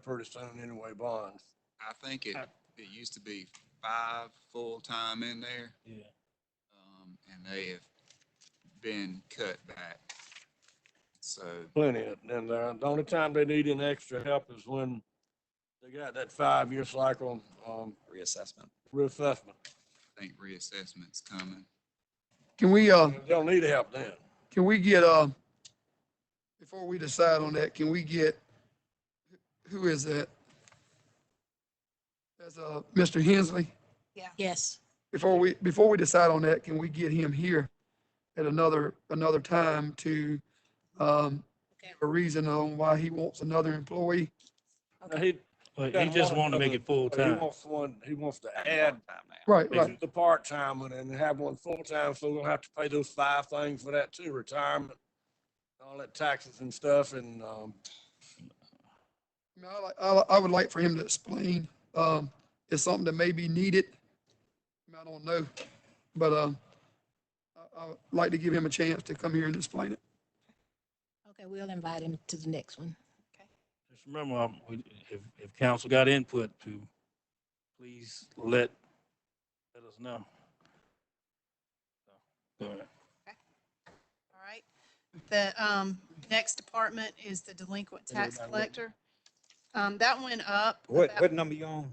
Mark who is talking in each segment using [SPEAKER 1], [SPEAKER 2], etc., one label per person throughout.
[SPEAKER 1] pretty soon anyway, bonds.
[SPEAKER 2] I think it, it used to be five full-time in there.
[SPEAKER 3] Yeah.
[SPEAKER 2] Um, and they have been cut back. So,
[SPEAKER 1] Plenty of, and uh, the only time they need an extra help is when they got that five-year cycle, um,
[SPEAKER 4] reassessment.
[SPEAKER 1] reassessment.
[SPEAKER 2] I think reassessment's coming.
[SPEAKER 5] Can we, uh,
[SPEAKER 1] They don't need help then.
[SPEAKER 5] can we get, uh, before we decide on that, can we get, who is that? That's, uh, Mr. Hensley.
[SPEAKER 6] Yes.
[SPEAKER 5] Before we, before we decide on that, can we get him here at another, another time to, um,
[SPEAKER 6] Okay.
[SPEAKER 5] give a reason on why he wants another employee?
[SPEAKER 1] Now, He,
[SPEAKER 3] But
[SPEAKER 1] Yeah,
[SPEAKER 3] he just
[SPEAKER 1] one
[SPEAKER 3] wanted to make
[SPEAKER 1] other-
[SPEAKER 3] it full
[SPEAKER 1] he
[SPEAKER 3] time.
[SPEAKER 1] wants one, he wants to add
[SPEAKER 4] Long time now.
[SPEAKER 5] Right, right.
[SPEAKER 1] to the part-time one and have one full-time, so we'll have to pay those five things for that too, retirement, all that taxes and stuff, and, um,
[SPEAKER 5] I mean, I like, I, li- I would like for him to explain, um, it's something that may be needed. I mean, I don't know, but, um, I, I would like to give him a chance to come here and explain it.
[SPEAKER 6] Okay, we'll invite him to the next one.
[SPEAKER 3] Just remember, um, we- if, if council got input to, please let, let us know. So, All right.
[SPEAKER 7] All right. The um, next department is the delinquent
[SPEAKER 1] Is there
[SPEAKER 7] tax
[SPEAKER 1] another one?
[SPEAKER 7] collector. Um, That went up.
[SPEAKER 4] What,
[SPEAKER 7] about-
[SPEAKER 4] what number you on?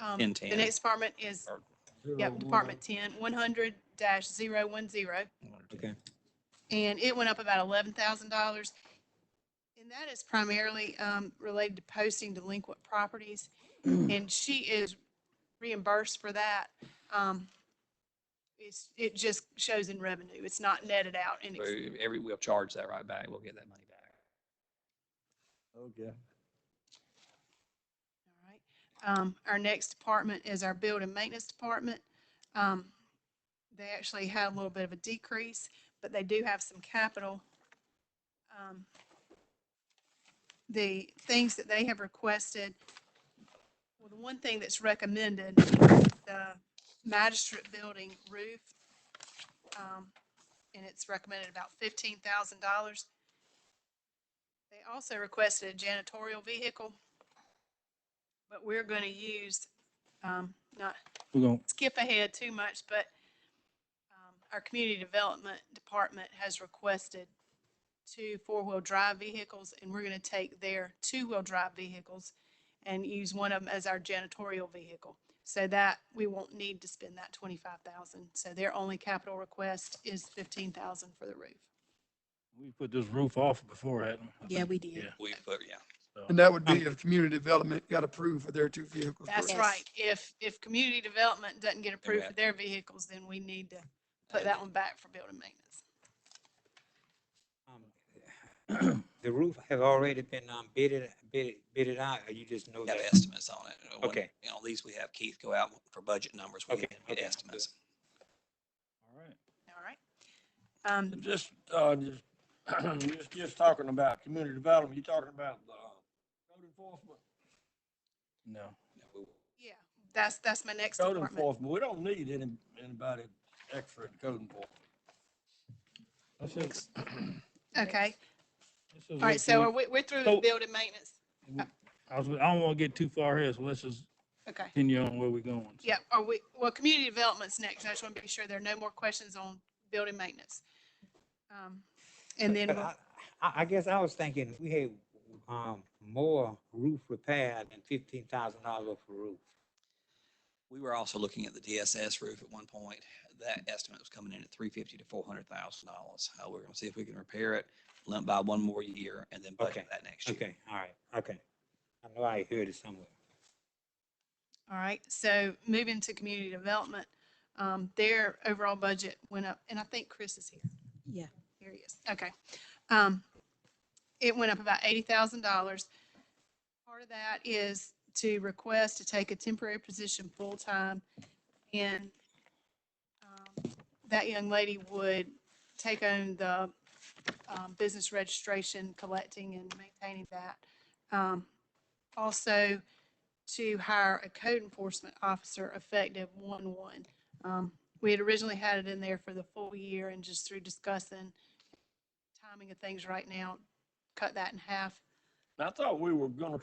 [SPEAKER 7] um,
[SPEAKER 4] 1010.
[SPEAKER 7] The next department is, yep, Department 10, 100 dash 010.
[SPEAKER 4] Okay.
[SPEAKER 7] And it went up about $11,000. And that is primarily um, related to posting delinquent properties. And she is reimbursed for that. Um, It's, it just shows in revenue. It's not netted out in
[SPEAKER 4] So
[SPEAKER 7] expenses.
[SPEAKER 4] Every, we'll charge that right back. We'll get that money back.
[SPEAKER 1] okay.
[SPEAKER 7] All right. Um, our next department is our building maintenance department. Um, they actually had a little bit of a decrease, but they do have some capital. Um, The things that they have requested, well, the one thing that's recommended, is the magistrate building roof. Um, and it's recommended about fifteen thousand dollars. They also requested a janitorial vehicle. But we're going to use, um, not
[SPEAKER 3] We're gonna,
[SPEAKER 7] skip ahead too much, but um, our community development department has requested two four-wheel drive vehicles, and we're going to take their two-wheel drive vehicles and use one of them as our janitorial vehicle. So that, we won't need to spend that twenty-five thousand. So their only capital request is fifteen thousand for the roof.
[SPEAKER 3] we put this roof off before, hadn't we?
[SPEAKER 6] Yeah, we did.
[SPEAKER 3] Yeah.
[SPEAKER 4] We put, yeah.
[SPEAKER 3] so-
[SPEAKER 5] And that would be if community development got approved for their two vehicles.
[SPEAKER 7] That's
[SPEAKER 5] correct?
[SPEAKER 7] right.
[SPEAKER 6] Yes.
[SPEAKER 7] If, if community development doesn't get approved for
[SPEAKER 4] have-
[SPEAKER 7] their vehicles, then we need to put that one back for building maintenance.
[SPEAKER 8] Um, The roof have already been um, bidded, bidded, bidded out, or you just know
[SPEAKER 4] We have
[SPEAKER 8] that?
[SPEAKER 4] estimates on it. Uh, when-
[SPEAKER 8] Okay.
[SPEAKER 4] You know, at least we have Keith go out for budget numbers. We
[SPEAKER 8] Okay,
[SPEAKER 4] get get
[SPEAKER 8] okay,
[SPEAKER 4] estimates.
[SPEAKER 3] All right.
[SPEAKER 7] All right. Um,
[SPEAKER 1] Just, uh, just, you're just, just talking about community development, you're talking about, uh, code enforcement.
[SPEAKER 3] No.
[SPEAKER 4] Yeah, we-
[SPEAKER 7] yeah, that's, that's my next
[SPEAKER 1] Code
[SPEAKER 7] department.
[SPEAKER 1] enforcement, we don't need any, anybody extra in code enforcement.
[SPEAKER 3] This is-
[SPEAKER 7] Okay,
[SPEAKER 3] this is
[SPEAKER 7] all right,
[SPEAKER 3] what
[SPEAKER 7] so
[SPEAKER 3] we-
[SPEAKER 7] are we, we're through
[SPEAKER 3] So-
[SPEAKER 7] with building maintenance?
[SPEAKER 3] I was, I don't want to get too far ahead, so let's just
[SPEAKER 7] Okay,
[SPEAKER 3] continue on where we're going. so.
[SPEAKER 7] yeah, are we, well, community development's next. I just want to be sure there are no more questions on building maintenance. Um, And then,
[SPEAKER 8] But
[SPEAKER 7] we'll-
[SPEAKER 8] I, I I guess I was thinking, we had um, more roof repair than fifteen thousand dollars for roof.
[SPEAKER 4] We were also looking at the DSS roof at one point. That estimate was coming in at three fifty to four hundred thousand dollars. Uh, we're gonna see if we can repair it, limp by one more year and then
[SPEAKER 8] Okay,
[SPEAKER 4] budget that next year.
[SPEAKER 8] Okay, all right, okay. I know I heard it somewhere.
[SPEAKER 7] all right, so moving to community development, um, their overall budget went up, and I think Chris is here.
[SPEAKER 6] Yeah.
[SPEAKER 7] Here he is. Okay. Um, it went up about eighty thousand dollars. Part of that is to request to take a temporary position full-time and um, that young lady would take on the um, business registration, collecting and maintaining that. Um, also to hire a code enforcement officer effective one-one. Um, we had originally had it in there for the full year and just through discussing timing of things right now, cut that in half.
[SPEAKER 1] I thought we were gonna